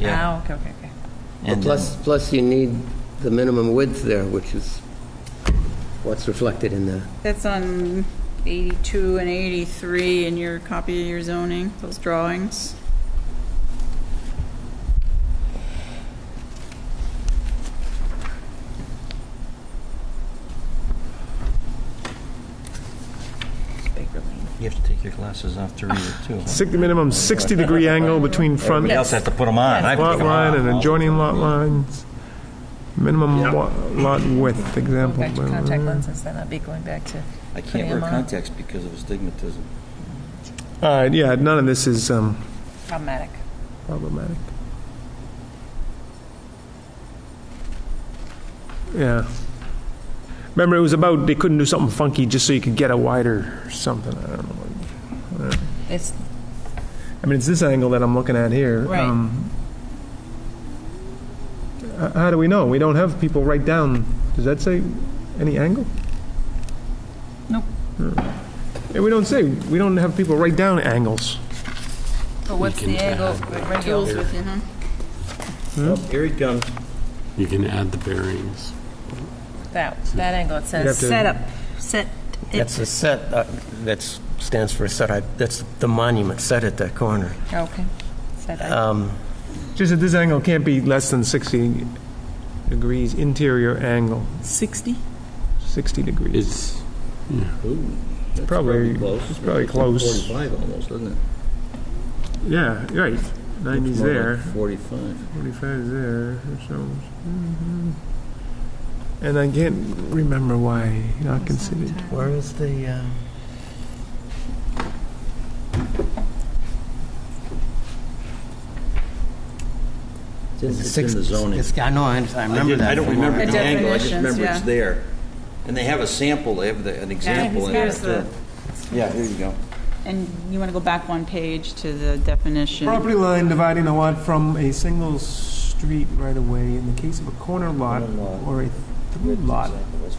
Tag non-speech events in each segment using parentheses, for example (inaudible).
Yeah. Ah, okay, okay, okay. And, Plus, plus you need the minimum width there, which is what's reflected in the, That's on 82 and 83 in your copy of your zoning, those drawings. You have to take your glasses off to read it, too. huh? Six- minimum 60-degree angle between front Everybody else has to put them on. I have to lot take 'em line off. and adjoining lot lines. Minimum wa- lot width, Going example. back to contact lenses, then I'd be going back to, I can't wear Putting 'em on. contacts because of astigmatism. All right, yeah, none of this is um, problematic. problematic. Yeah. Remember, it was about, they couldn't do something funky just so you could get a wider something, I don't know. It's, I mean, it's this angle that I'm looking at here. Right. Um, h- How do we know? We don't have people write down, does that say any angle? Hmm. Nope. Yeah, we don't say, we don't have people write down angles. but what's the angle, Jules regular, with you, huh? Here he comes. You can add the bearings. that, that angle, it You'd have says, to- Set up, set that's it. the set, uh, that's, stands for a set, I- that's the monument set at that corner. okay. Set up. Um, Just that this angle can't be less than 60 degrees interior angle, Uh, 60? 60 degrees. It's, It's probably, it's probably close. Forty-five almost, isn't it? Yeah, right. 90's More like there, Forty-five. 45's there, or so. Mhm. And I can't remember why not considered. Where is the, uh, It's in- It's in the zoning. It's- I know, I I I remember didn't- that. I don't from remember The the angle, I just definitions, remember it's yeah. there. And they have a sample, they have the- an example. in here's there, too. Yeah, here you go. And you want to go back one page to the definition. Property line dividing a lot from a single street right away in the case of a corner lot or a through lot.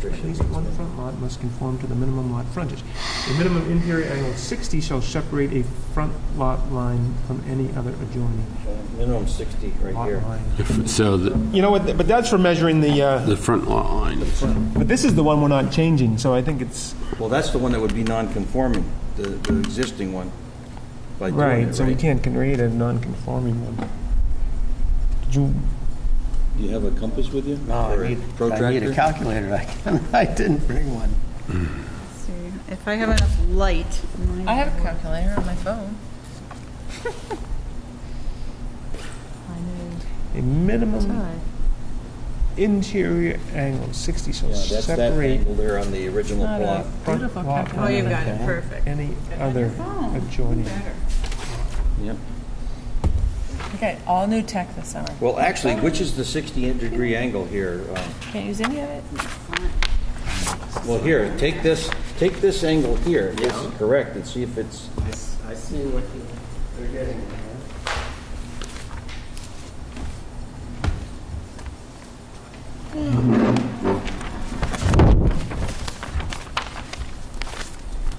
At least one front lot must conform to the minimum lot frontage. The minimum interior angle of 60 shall separate a front lot line from any other adjoining Minimum 60 right lot here. line. if- so the, You know what, but that's for measuring the, uh, the front lot lines. but this is the one we're not changing, so I think it's, Well, that's the one that would be non-conforming, the the existing one, by doing it, right? right, so we can't create a non-conforming one. Did you, Do you have a compass with you? No, Or a Oh, Uh, I need, I need protractor? a calculator. I can't- (laughs) I didn't bring one. Let's see. If I have enough light. my- I have a calculator on my phone. a minimum interior angle of 60 shall Yeah, that's that separate angle there on the original plot. front lot Oh, you've line got it, perfect. any other phone. adjoining. Yep. Okay, all new tech this summer. Well, actually, which is the 60-degree angle here? Um, Can't use any of it? Well, here, take this, take this angle here, this is correct, and see if it's, I see what they're getting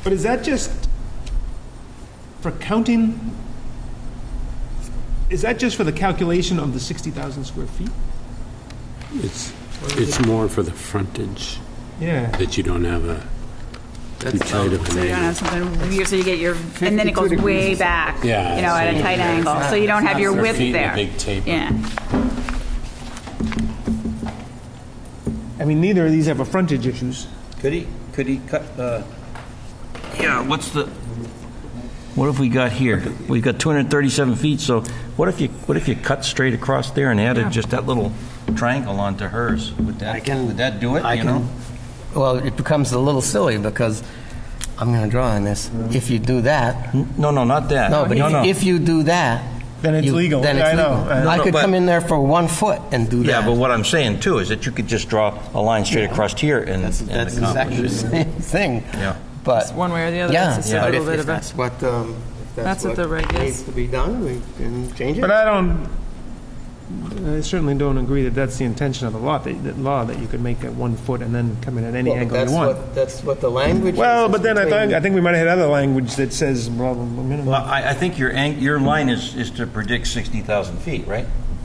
But is that just for counting? Is that just for the calculation of the 60,000 square feet? It's, it's more for the frontage, Yeah. that you don't have a too tight of an So you don't angle. have something weird, so you get your, and then it goes way back, you know, Yeah, so at a you- tight angle, so you don't have your Your width feet in a there. big taper. Yeah. I mean, neither of these have a frontage issues. could he, could he cut, uh, yeah, what's the, what have we got here? We've got 237 feet, so what if you, what if you cut straight across there and added just that little triangle onto hers? Would I that, can- would that do it, I you can- know? Well, it becomes a little silly because I'm going to draw on this. If you do that, No, no, not that. no, but if- if you do that. Then it's you- legal. Then Yeah, it's I know. legal. I know. I No, could but- come in there for one foot and do that. Yeah, but what I'm saying too is that you could just draw a line straight across here and That's, and that's accomplish exactly the it. same thing. Yeah. But. It's one way or the other, Yeah, it's just a yeah. but little if bit if of a- that's what, um, if That's that's what the what reg is. needs to be done, we can change it. But I don't, I certainly don't agree that that's the intention of the law, that, that law, that you could make that one foot and then come in at any Well, angle that's you want. what- That's what the language is. Well, It's but then I between- think, I think we might have had other language that says blah, blah, blah, minimum. Well, I, I think your, ang- your line is, is to predict 60,000 feet, right?